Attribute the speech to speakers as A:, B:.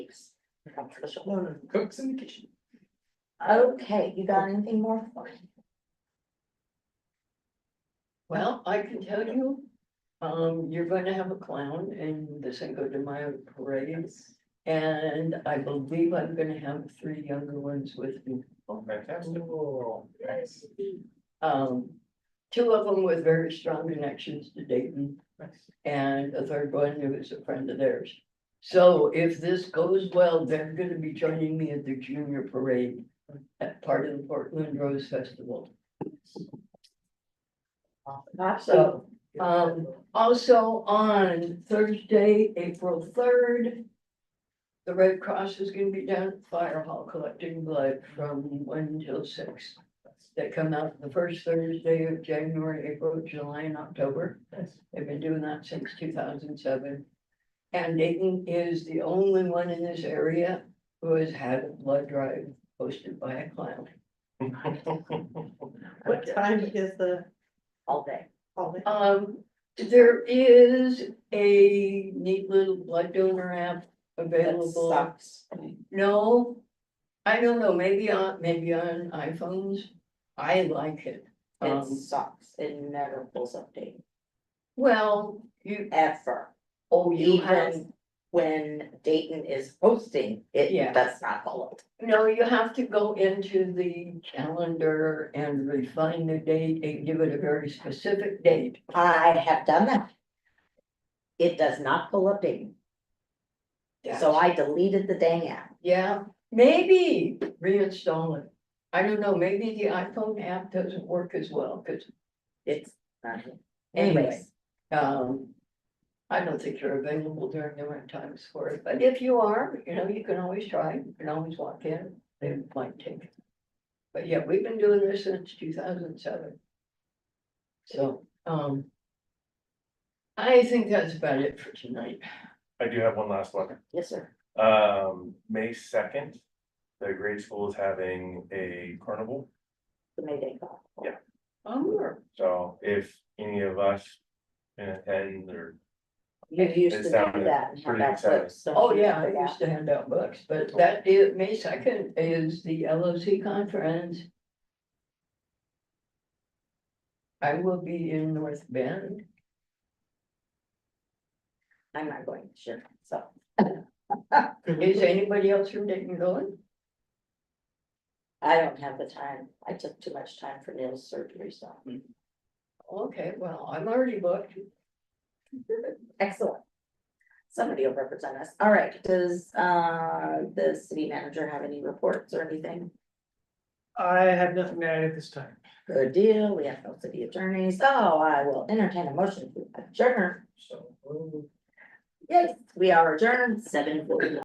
A: Cooks in the kitchen.
B: Okay, you got anything more for me?
C: Well, I can tell you, um, you're going to have a clown in the Cinco de Mayo parade. And I believe I'm gonna have three younger ones with me.
A: Oh, fantastic. Nice.
C: Um, two of them with very strong connections to Dayton
A: Nice.
C: and a third one who is a friend of theirs. So if this goes well, they're gonna be joining me at the junior parade at part of the Portland Rose Festival. So, um, also on Thursday, April third. The Red Cross is gonna be down at the Fire Hall collecting blood from one till six. That come out the first Thursday of January, April, July and October.
A: Nice.
C: They've been doing that since two thousand seven. And Dayton is the only one in this area who has had a blood drive hosted by a clown.
D: What time is the
B: All day.
D: holiday?
C: Um, there is a neat little blood donor app available.
D: Sucks.
C: No, I don't know, maybe on, maybe on iPhones. I like it.
B: It
C: Um,
B: sucks. It never pulls up data
C: well, you,
B: ever.
C: oh, you have,
B: Even when Dayton is hosting,
C: Yeah.
B: it does not pull up.
C: no, you have to go into the calendar and refine the date and give it a very specific date.
B: I have done that. It does not pull up Dayton, so I deleted the dang app.
C: Yeah, maybe reinstall it. I don't know, maybe the iPhone app doesn't work as well, cause
B: It's not.
C: Anyway.
B: Anyways,
C: Um, I don't think you're available during the right times for it, but if you are, you know, you can always try, you can always walk in, they might take it. But yeah, we've been doing this since two thousand seven. So, um. I think that's about it for tonight.
A: I do have one last one.
B: yes, sir.
A: Um, May second, the grade school is having a carnival.
B: The May Day call.
A: Yeah.
C: Um,
A: So if any of us can attend or
B: You used to
A: It
B: do
A: sounded
B: that and have
A: pretty
B: that
A: exciting.
B: clip, so.
C: oh yeah, I used to hand out books, but that is, May second is the LOC conference. I will be in North Bend.
B: I'm not going to shit, so.
C: Is anybody else from Dayton going?
B: I don't have the time. I took too much time for nail surgery, so.
C: Okay, well, I'm already booked.
B: Excellent. Somebody will represent us. All right, does, uh, the city manager have any reports or anything?
E: I have nothing to add at this time.
B: Good deal. We have no city attorneys, so I will entertain a motion to adjourn.
E: So.
B: Yes, we are adjourned seven forty-one.